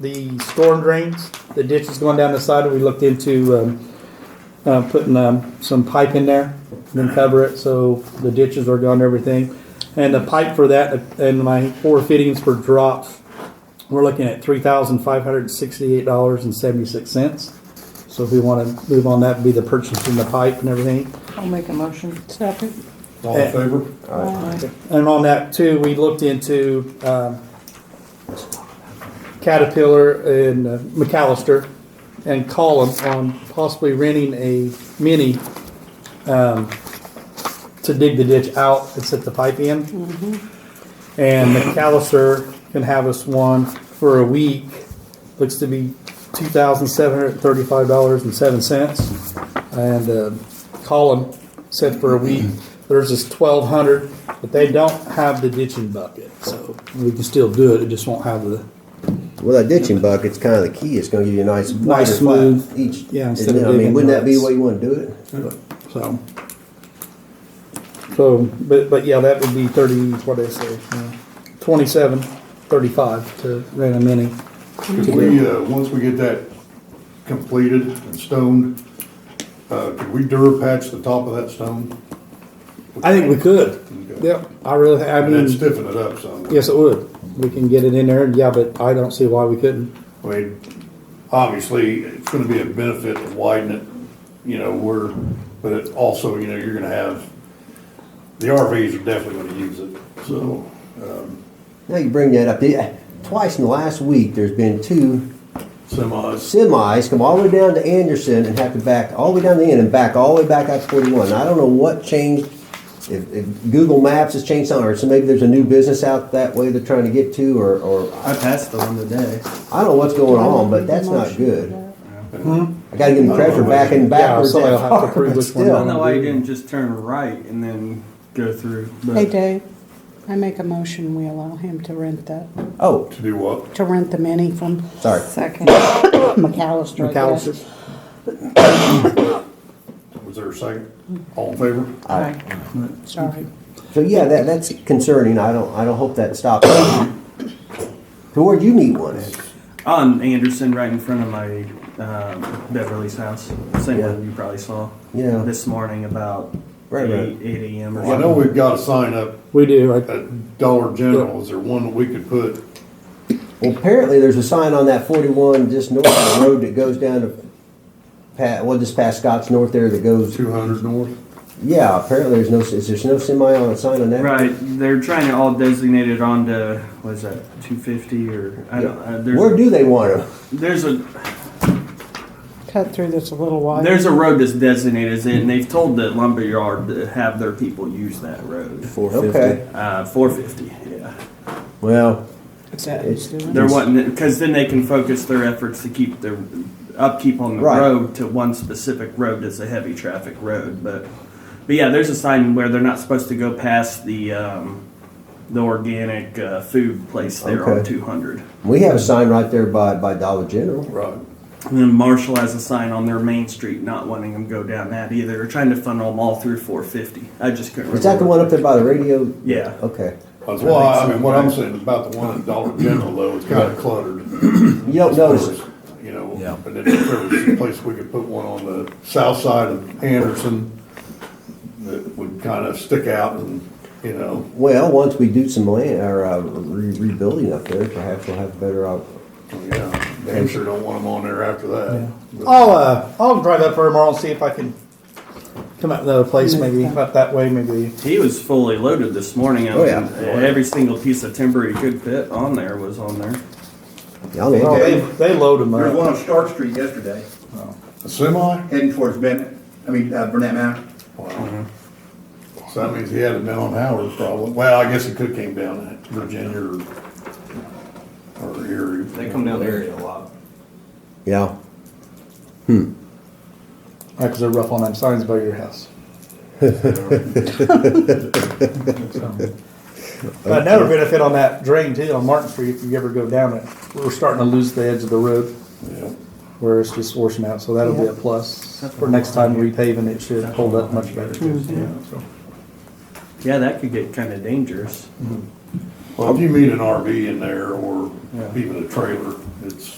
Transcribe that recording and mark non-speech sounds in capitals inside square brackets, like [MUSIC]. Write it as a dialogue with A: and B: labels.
A: the storm drains, the ditches going down the side, we looked into, um, uh, putting, um, some pipe in there, and then cover it, so the ditches are gone, and everything. And the pipe for that, and my four fittings for drops, we're looking at three thousand five hundred and sixty-eight dollars and seventy-six cents. So if we wanna move on, that would be the purchasing the pipe and everything.
B: I'll make a motion. Second.
C: All in favor?
A: And on that too, we looked into um, Caterpillar and uh, McAllister and Column on possibly renting a mini um, to dig the ditch out and set the pipe in. And McAllister can have us one for a week. Looks to be two thousand seven hundred thirty-five dollars and seven cents. And uh, Colin said for a week, there's this twelve hundred, but they don't have the ditching bucket, so we can still do it. It just won't have the
D: Well, that ditching bucket's kind of the key. It's going to give you a nice, wider flat
A: smooth,
D: each.
A: yeah,
D: isn't
A: instead of
D: it? I mean,
A: digging
D: wouldn't that be the
A: ruts.
D: way you want to do it?
A: so. So, but but yeah, that would be thirty. What did I say? Uh, Twenty-seven, thirty-five to rent a mini.
C: Could we, uh, once we get that completed and stoned, uh, could we dur patch the top of that stone?
A: I think we could.
C: Okay.
A: Yep, I really. I
C: And then
A: mean,
C: stiffen it up some?
A: Yes, it would. We can get it in there, yeah, but I don't see why we couldn't.
C: I mean, obviously, it's gonna be a benefit to widen it, you know, we're, but it also, you know, you're gonna have, the RVs are definitely gonna use it, so,
D: Now you bring that up. The- Twice in the last week, there's been two
C: semis.
D: semis come all the way down to Anderson and have to back all the way down the end and back all the way back out to 41. I don't know what changed. If, if Google Maps has changed something, or so maybe there's a new business out that way they're trying to get to, or, or I,
E: I passed the one today.
D: I don't know what's going on, but that's not good. I got to give them credit for backing
A: Yeah,
D: backwards.
A: somebody'll
D: that
A: have to
D: far,
A: prove
D: but
A: which one
E: I
D: still.
E: don't know why you didn't just turn right and then go through. but-
B: Hey, Dave, I make a motion, we allow him to rent that,
D: Oh,
C: To do what?
B: to rent the mini from
D: sorry.
F: Second.
B: [COUGHS] McAllister. I guess.
A: McAllister's.
C: Was there a second? All in favor?
B: Aye. Sorry.
D: So yeah, that, that's concerning. I don't, I don't hope that stops. So where'd you meet one at?
E: On Anderson, right in front of my um, Beverly's house. Same
D: Yeah.
E: one you probably saw.
D: Yeah.
E: This morning about
D: Right, right.
E: eight, eight a.m. or
C: Well, I know
E: something.
C: we've got a sign up
A: We do, I-
C: at Dollar General, is there one that we could put?
D: Well, apparently there's a sign on that forty-one just north of the road that goes down to pa well, just past Scott's North there that goes,
C: Two hundred north.
D: yeah, apparently there's no, is there's no semi on a sign on that?
E: Right, they're trying to all designate it onto what is that, two fifty or I don't. Uh, there's
D: Where do they want them?
E: there's a
B: Cut through this a little while.
E: there's a road that's designated as it, and they've told the lumberyard to have their people use that road.
D: Okay,
E: Uh, four fifty. Yeah.
D: well,
B: It's
E: They're wanting because then they can focus their efforts to keep their upkeep on the
D: Right.
E: road to one specific road that's a heavy traffic road. But but yeah, there's a sign where they're not supposed to go past the um, the organic uh, food place there on
D: Okay.
E: 200.
D: we have a sign right there by, by Dollar General.
C: Right.
E: And then Marshall has a sign on their main street not wanting them to go down that either. They're trying to funnel them all through 450. I just couldn't.
D: Is that the
E: remember.
D: one Oh. up there by the radio?
E: Yeah.
D: Okay.
C: That's why, I mean, what I'm saying about the one at Dollar General though, it's kinda cluttered.
D: You don't notice it?
C: You know, but then if there was a place we could put one on the south side of Anderson that would kinda stick out and, you know,
D: Well, once we do some land, or uh, re- rebuilding up there, perhaps we'll have better, uh, out-
C: oh, yeah, they sure don't want them on there after that.
A: I'll, uh, I'll drive up there tomorrow and see if I can come up with another place, maybe, up that way, maybe.
E: He was fully loaded this morning. I
D: Oh, yeah.
E: mean, Every single piece of timber he could fit on there was on there.
D: y'all
A: Oh,
D: know.
A: they, they load them
G: There's
A: up.
G: one on Stark Street yesterday,
C: A semi?
G: heading towards Bennett, I mean, uh, Burnett Mountain.
C: Wow. So that means he had it down on Howard probably. Well, I guess it could came down at Virginia or, or Erie.
E: down there a lot.
D: Yeah.
A: Right, because they're rough on them signs by your
C: [LAUGHS]
A: house. But another benefit on that drain too, on Martin Street, if you ever go down it, we're starting to lose the edge of the road
C: Yeah.
A: where it's just washing out, so that'll be a plus. For next time repaving, it should hold up much better.
E: Hmm. Yeah, that could get kind of dangerous.
C: Well, if you meet an RV in there or even a trailer, It's,